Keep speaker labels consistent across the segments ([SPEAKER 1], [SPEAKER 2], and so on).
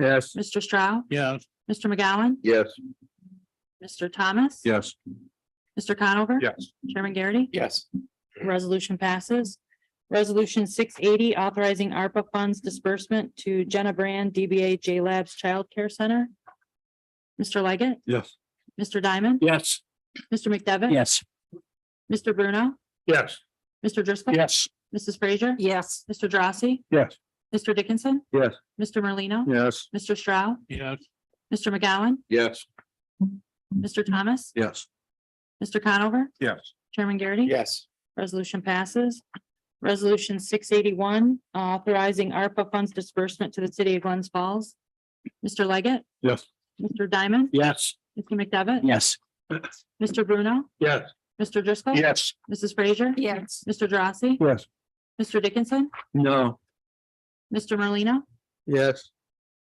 [SPEAKER 1] Yes.
[SPEAKER 2] Mr. Stroud,
[SPEAKER 1] Yes.
[SPEAKER 2] Mr. McGowan,
[SPEAKER 1] Yes.
[SPEAKER 2] Mr. Thomas.
[SPEAKER 1] Yes.
[SPEAKER 2] Mr. Conover.
[SPEAKER 1] Yes.
[SPEAKER 2] Chairman Garrity.
[SPEAKER 1] Yes.
[SPEAKER 2] Resolution passes. Resolution six eighty, authorizing ARPA funds disbursement to Jenna Brand, DBA J Labs Child Care Center. Mr. Leggett,
[SPEAKER 1] Yes.
[SPEAKER 2] Mr. Diamond,
[SPEAKER 1] Yes.
[SPEAKER 2] Mr. McDevitt.
[SPEAKER 1] Yes.
[SPEAKER 2] Mr. Bruno,
[SPEAKER 1] Yes.
[SPEAKER 2] Mr. Driscoll.
[SPEAKER 1] Yes.
[SPEAKER 2] Mrs. Frazier. Yes. Mr. Drossy,
[SPEAKER 1] Yes.
[SPEAKER 2] Mr. Dickinson.
[SPEAKER 1] Yes.
[SPEAKER 2] Mr. Merlino.
[SPEAKER 1] Yes.
[SPEAKER 2] Mr. Stroud,
[SPEAKER 1] Yes.
[SPEAKER 2] Mr. McGowan,
[SPEAKER 1] Yes.
[SPEAKER 2] Mr.
[SPEAKER 1] Mm-hmm.
[SPEAKER 2] Thomas,
[SPEAKER 1] Yes.
[SPEAKER 2] Mr. Conover,
[SPEAKER 1] Yes.
[SPEAKER 2] Chairman Garrity.
[SPEAKER 1] Yes.
[SPEAKER 2] Resolution passes. Resolution six eighty-one, authorizing ARPA funds disbursement to the city of Glens Falls. Mr. Leggett,
[SPEAKER 1] Yes.
[SPEAKER 2] Mr. Diamond,
[SPEAKER 1] Yes.
[SPEAKER 2] Mr. McDevitt,
[SPEAKER 1] Yes.
[SPEAKER 2] Mr. Bruno,
[SPEAKER 1] Yes.
[SPEAKER 2] Mr. Driscoll.
[SPEAKER 1] Yes.
[SPEAKER 2] Mrs. Frazier.
[SPEAKER 3] Yes.
[SPEAKER 2] Mr. Drossy,
[SPEAKER 1] Yes.
[SPEAKER 2] Mr. Dickinson,
[SPEAKER 1] No.
[SPEAKER 2] Mr. Merlino,
[SPEAKER 1] Yes.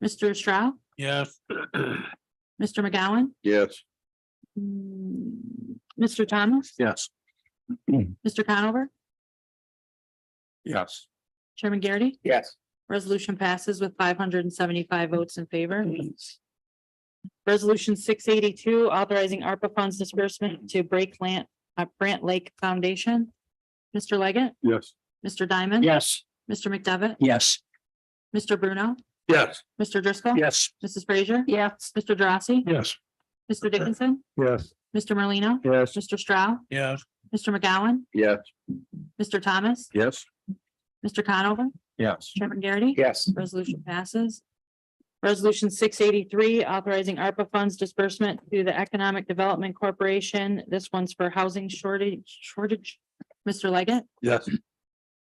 [SPEAKER 2] Mr. Stroud,
[SPEAKER 1] Yes.
[SPEAKER 2] Mr. McGowan,
[SPEAKER 1] Yes.
[SPEAKER 2] mm, Mr. Thomas,
[SPEAKER 1] Yes.
[SPEAKER 2] Mr. Conover,
[SPEAKER 1] Yes.
[SPEAKER 2] Chairman Garrity.
[SPEAKER 1] Yes.
[SPEAKER 2] Resolution passes with five hundred and seventy-five votes in favor. Resolution six eighty-two, authorizing ARPA funds disbursement to Break Land, uh, Brant Lake Foundation. Mr. Leggett,
[SPEAKER 1] Yes.
[SPEAKER 2] Mr. Diamond.
[SPEAKER 1] Yes.
[SPEAKER 2] Mr. McDevitt,
[SPEAKER 1] Yes.
[SPEAKER 2] Mr. Bruno,
[SPEAKER 1] Yes.
[SPEAKER 2] Mr. Driscoll.
[SPEAKER 1] Yes.
[SPEAKER 2] Mrs. Frazier.
[SPEAKER 3] Yes.
[SPEAKER 2] Mr. Drossy.
[SPEAKER 1] Yes.
[SPEAKER 2] Mr. Dickinson,
[SPEAKER 1] Yes.
[SPEAKER 2] Mr. Merlino,
[SPEAKER 1] Yes.
[SPEAKER 2] Mr. Stroud,
[SPEAKER 1] Yes.
[SPEAKER 2] Mr. McGowan,
[SPEAKER 1] Yes.
[SPEAKER 2] Mr. Thomas,
[SPEAKER 1] Yes.
[SPEAKER 2] Mr. Conover,
[SPEAKER 1] Yes.
[SPEAKER 2] Chairman Garrity.
[SPEAKER 1] Yes.
[SPEAKER 2] Resolution passes. Resolution six eighty-three, authorizing ARPA funds disbursement to the Economic Development Corporation. This one's for housing shortage, shortage. Mr. Leggett,
[SPEAKER 1] Yes.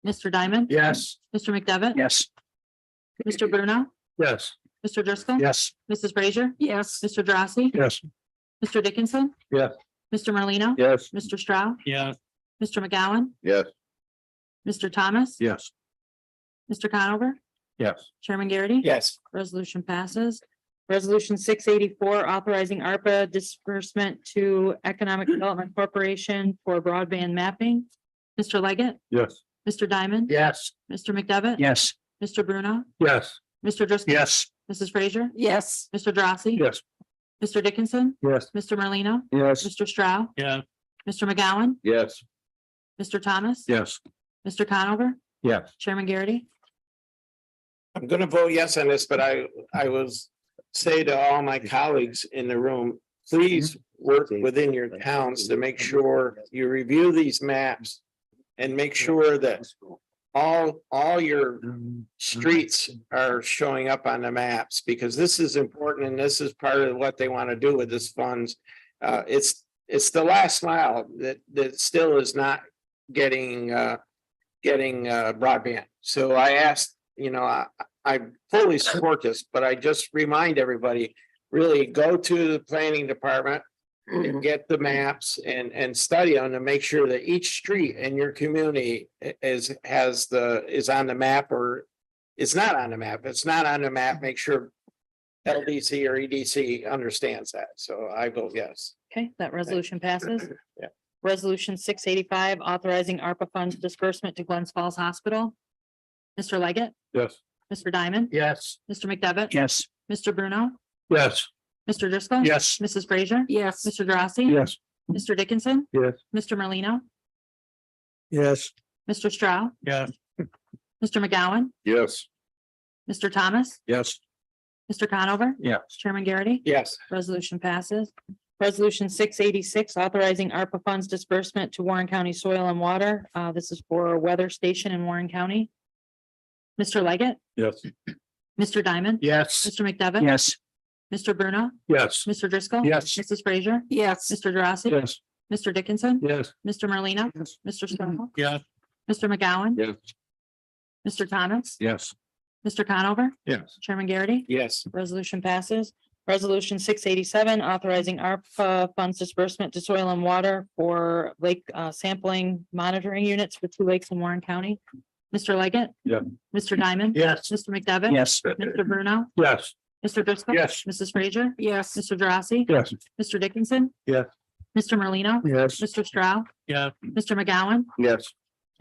[SPEAKER 2] Mr. Diamond.
[SPEAKER 1] Yes.
[SPEAKER 2] Mr. McDevitt.
[SPEAKER 1] Yes.
[SPEAKER 2] Mr. Bruno,
[SPEAKER 1] Yes.
[SPEAKER 2] Mr. Driscoll.
[SPEAKER 1] Yes.
[SPEAKER 2] Mrs. Frazier,
[SPEAKER 3] Yes.
[SPEAKER 2] Mr. Drossy,
[SPEAKER 1] Yes.
[SPEAKER 2] Mr. Dickinson.
[SPEAKER 1] Yes.
[SPEAKER 2] Mr. Merlino.
[SPEAKER 1] Yes.
[SPEAKER 2] Mr. Stroud,
[SPEAKER 1] Yes.
[SPEAKER 2] Mr. McGowan,
[SPEAKER 1] Yes.
[SPEAKER 2] Mr. Thomas.
[SPEAKER 1] Yes.
[SPEAKER 2] Mr. Conover,
[SPEAKER 1] Yes.
[SPEAKER 2] Chairman Garrity.
[SPEAKER 1] Yes.
[SPEAKER 2] Resolution passes. Resolution six eighty-four, authorizing ARPA disbursement to Economic Development Corporation for broadband mapping. Mr. Leggett,
[SPEAKER 1] Yes.
[SPEAKER 2] Mr. Diamond.
[SPEAKER 1] Yes.
[SPEAKER 2] Mr. McDevitt.
[SPEAKER 1] Yes.
[SPEAKER 2] Mr. Bruno,
[SPEAKER 1] Yes.
[SPEAKER 2] Mr. Driscoll.
[SPEAKER 1] Yes.
[SPEAKER 2] Mrs. Frazier,
[SPEAKER 3] Yes.
[SPEAKER 2] Mr. Drossy.
[SPEAKER 1] Yes.
[SPEAKER 2] Mr. Dickinson,
[SPEAKER 1] Yes.
[SPEAKER 2] Mr. Merlino,
[SPEAKER 1] Yes.
[SPEAKER 2] Mr. Stroud,
[SPEAKER 1] Yeah.
[SPEAKER 2] Mr. McGowan,
[SPEAKER 1] Yes.
[SPEAKER 2] Mr. Thomas.
[SPEAKER 1] Yes.
[SPEAKER 2] Mr. Conover,
[SPEAKER 1] Yes.
[SPEAKER 2] Chairman Garrity.
[SPEAKER 4] I'm gonna vote yes on this, but I, I was say to all my colleagues in the room, please work within your towns to make sure you review these maps and make sure that all, all your streets are showing up on the maps because this is important and this is part of what they want to do with this funds. Uh, it's, it's the last mile that, that still is not getting, uh, getting, uh, broadband. So I asked, you know, I, I fully support this, but I just remind everybody, really go to the planning department and get the maps and, and study them to make sure that each street in your community i- is, has the, is on the map or it's not on the map. It's not on the map. Make sure LDC or EDC understands that. So I vote yes.
[SPEAKER 2] Okay, that resolution passes.
[SPEAKER 4] Yeah.
[SPEAKER 2] Resolution six eighty-five, authorizing ARPA funds disbursement to Glens Falls Hospital. Mr. Leggett,
[SPEAKER 1] Yes.
[SPEAKER 2] Mr. Diamond,
[SPEAKER 1] Yes.
[SPEAKER 2] Mr. McDevitt.
[SPEAKER 1] Yes.
[SPEAKER 2] Mr. Bruno,
[SPEAKER 1] Yes.
[SPEAKER 2] Mr. Driscoll.
[SPEAKER 1] Yes.
[SPEAKER 2] Mrs. Frazier,
[SPEAKER 3] Yes.
[SPEAKER 2] Mr. Drossy.
[SPEAKER 1] Yes.
[SPEAKER 2] Mr. Dickinson.
[SPEAKER 1] Yes.
[SPEAKER 2] Mr. Merlino,
[SPEAKER 1] Yes.
[SPEAKER 2] Mr. Stroud,
[SPEAKER 1] Yes.
[SPEAKER 2] Mr. McGowan,
[SPEAKER 1] Yes.
[SPEAKER 2] Mr. Thomas,
[SPEAKER 1] Yes.
[SPEAKER 2] Mr. Conover,
[SPEAKER 1] Yes.
[SPEAKER 2] Chairman Garrity.
[SPEAKER 4] Yes.
[SPEAKER 2] Resolution passes. Resolution six eighty-six, authorizing ARPA funds disbursement to Warren County Soil and Water. Uh, this is for a weather station in Warren County. Mr. Leggett,
[SPEAKER 1] Yes.
[SPEAKER 2] Mr. Diamond.
[SPEAKER 1] Yes.
[SPEAKER 2] Mr. McDevitt.
[SPEAKER 1] Yes.
[SPEAKER 2] Mr. Bruno,
[SPEAKER 1] Yes.
[SPEAKER 2] Mr. Driscoll.
[SPEAKER 1] Yes.
[SPEAKER 2] Mrs. Frazier,
[SPEAKER 3] Yes.
[SPEAKER 2] Mr. Drossy.
[SPEAKER 1] Yes.
[SPEAKER 2] Mr. Dickinson.
[SPEAKER 1] Yes.
[SPEAKER 2] Mr. Merlino,
[SPEAKER 1] Yes.
[SPEAKER 2] Mr. Stroll,
[SPEAKER 1] Yes.
[SPEAKER 2] Mr. McGowan.
[SPEAKER 1] Yes.
[SPEAKER 2] Mr. Thomas.
[SPEAKER 1] Yes.
[SPEAKER 2] Mr. Conover,
[SPEAKER 1] Yes.
[SPEAKER 2] Chairman Garrity.
[SPEAKER 4] Yes.
[SPEAKER 2] Resolution passes. Resolution six eighty-seven, authorizing ARPA funds disbursement to soil and water for lake uh, sampling monitoring units for two lakes in Warren County. Mr. Leggett.
[SPEAKER 1] Yeah.
[SPEAKER 2] Mr. Diamond.
[SPEAKER 1] Yes.
[SPEAKER 2] Mr. McDevitt.
[SPEAKER 1] Yes.
[SPEAKER 2] Mr. Bruno.
[SPEAKER 1] Yes.
[SPEAKER 2] Mr. Driscoll.
[SPEAKER 1] Yes.
[SPEAKER 2] Mrs. Frazier.
[SPEAKER 3] Yes.
[SPEAKER 2] Mr. Drossy.
[SPEAKER 1] Yes.
[SPEAKER 2] Mr. Dickinson.
[SPEAKER 1] Yeah.
[SPEAKER 2] Mr. Merlino.
[SPEAKER 1] Yes.
[SPEAKER 2] Mr. Stroud.
[SPEAKER 1] Yeah.
[SPEAKER 2] Mr. McGowan.
[SPEAKER 1] Yes.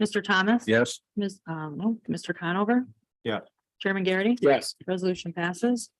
[SPEAKER 2] Mr. Thomas.
[SPEAKER 1] Yes.
[SPEAKER 2] Ms. Um, no, Mr. Conover.
[SPEAKER 1] Yeah.
[SPEAKER 2] Chairman Garrity.
[SPEAKER 4] Yes.
[SPEAKER 2] Resolution passes.